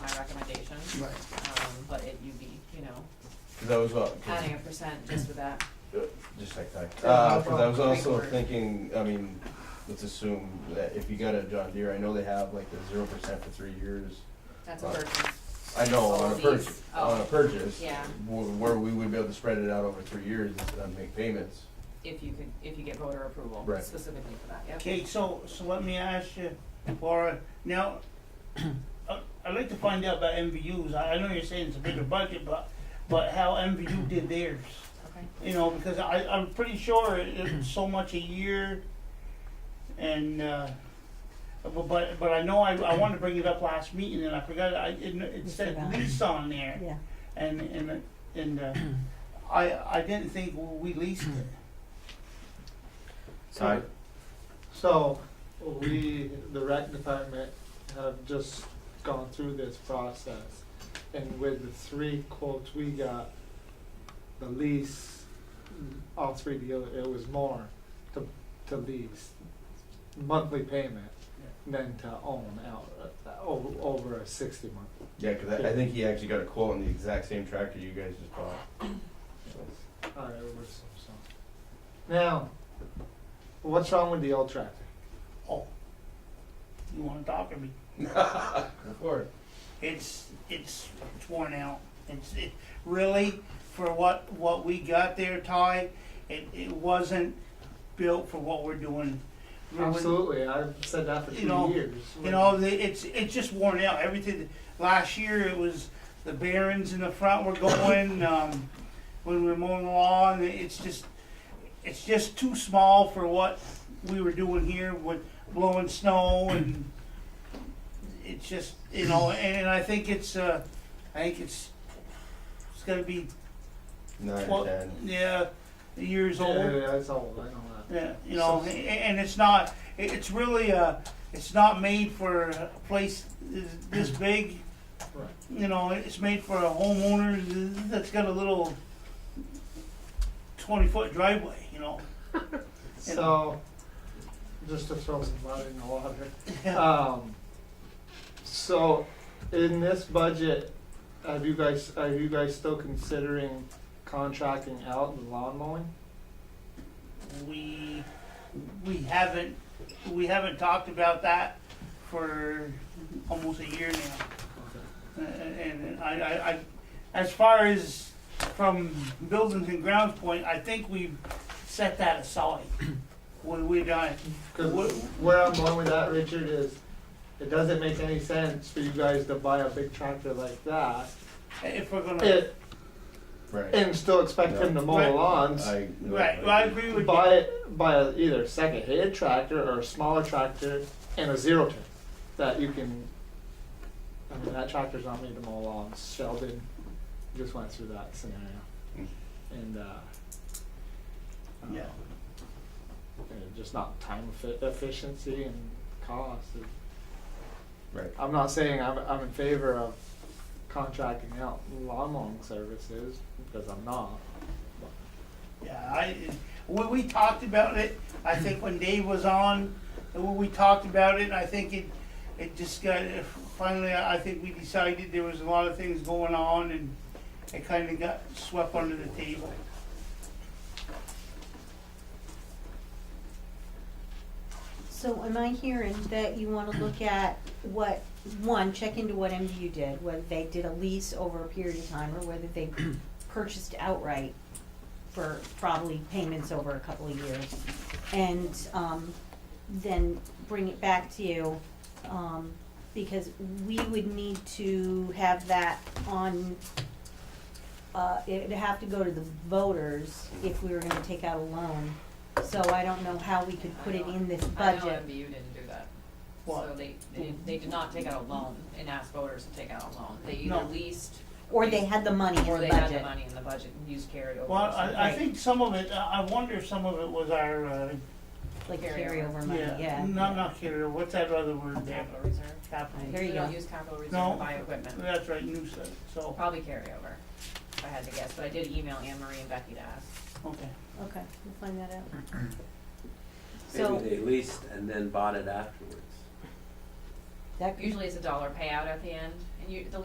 Right. Um, but it, you'd be, you know, Cause I was, al- 'cause- adding a percent just for that. just like that, Yeah, uh, no cause I was problem. also Great word. thinking, I mean, let's assume that if you got a John Deere, I know they have like the zero percent for three years. That's a Right. burden. I know, All on a these. purchase, Oh. on a purchase. Yeah. wh- Where we would be able to spread it out over three years and make payments. if you could, if you get voter approval Right. specifically for that, yep. Okay, so, so let me ask you, Laura, now, I- I'd like to find out about MVUs, I, I know you're saying it's a bigger budget, but, but how MVU did theirs? Okay. You know, because I, I'm pretty sure it- it's so much a year, and, uh, but, but, but I know I, I wanted to bring it up last meeting, and I forgot, I, it, it said forgot. lease on there. Yeah, And, and, and, uh, I, I didn't think we leased it. I- So, we, the rec department, have just gone through this process, and with the three quotes we got, the lease, all three deal, it was more to, to lease, monthly payment than to own out, uh, over, over a sixty month. Yeah, cause I, I think he actually got a quote on the exact same tractor you guys just bought. So, Alright, we're, so, so. Now, what's wrong with the old tractor? Oh, you wanna talk to me? Of course. It's, it's it's worn out. It's, it, really, for what, what we got there, Ty, it, it wasn't built for what we're doing. We wouldn't- Absolutely, I've said that for You two know, years. You know, the- it's, it's just worn out. Everything, last year it was the bearings in the front were going, um, when we we're mowing lawn, it's just, it's just too small for what we were doing here with blowing snow and it's just, you know, and, and I think it's, uh, I think it's, it's gonna be, Nine, Well, ten. yeah, years Yeah, yeah, old. yeah, it's old, I know that. Yeah, you know, a- and it's not, it- it's really, uh, it's not made for a place this- this big. Right. You know, it's made for a homeowner that's got a little twenty-foot driveway, you know? So, just to throw some mud in the water. Um, so, in this budget, have you guys, are you guys still considering contracting out the lawn mowing? We, we haven't, we haven't talked about that for almost a year now. Uh, And I, I, I, as far as from buildings and grounds point, I think we've set that aside when we're done. Cause where I'm going with that, Richard, is it doesn't make any sense for you guys to buy a big tractor like that. If we're gonna, It, Right. and still expect him to mow the Right. lawns. I- right, well, I agree with you. Buy buy a, either a second hand tractor or a smaller tractor and a zero turn that you can. I mean that tractor's not made to mow lawns. Sheldon just went through that scenario, and uh, Yeah. uh, and just not time effi- efficiency and cost. It- Right. I'm not saying I'm I'm in favor of contracting out lawn mowing services because I'm not. Yeah, I, we, we talked about it, I think when Dave was on, and when we talked about it, I think it, it just got, finally, I think we decided there was a lot of things going on and it kinda got swept under the table. so am I hearing that you wanna look at what, one, check into what MDU did, whether they did a lease over a period of time, or whether they purchased outright for probably payments over a couple of years, and, um, then bring it back to you, um, because we would need to have that on, uh, it'd have to go to the voters if we were gonna take out a loan, so I don't know how we could put it in this budget. I know MBU didn't do that. So What? they, they, they did not take out a loan and ask voters to take out a loan. They either No. leased Or they had the money in the or budget. they had the money in the budget and used carryover. Well, I, I Right. think some of it, I I wonder if some of it was our, uh, Like Carryover. carryover money, yeah. Not, not carrier, what's that other word there? Capital reserve. Capital. There They you don't go. use capital reserve No. to buy equipment. That's right, new set, so, Probably carryover, if I had to guess, but I did email Anne Marie and Becky to ask. okay. Okay, we'll find that out. So, Maybe they leased and then bought it afterwards. that could Usually it's a dollar payout at the end and you, the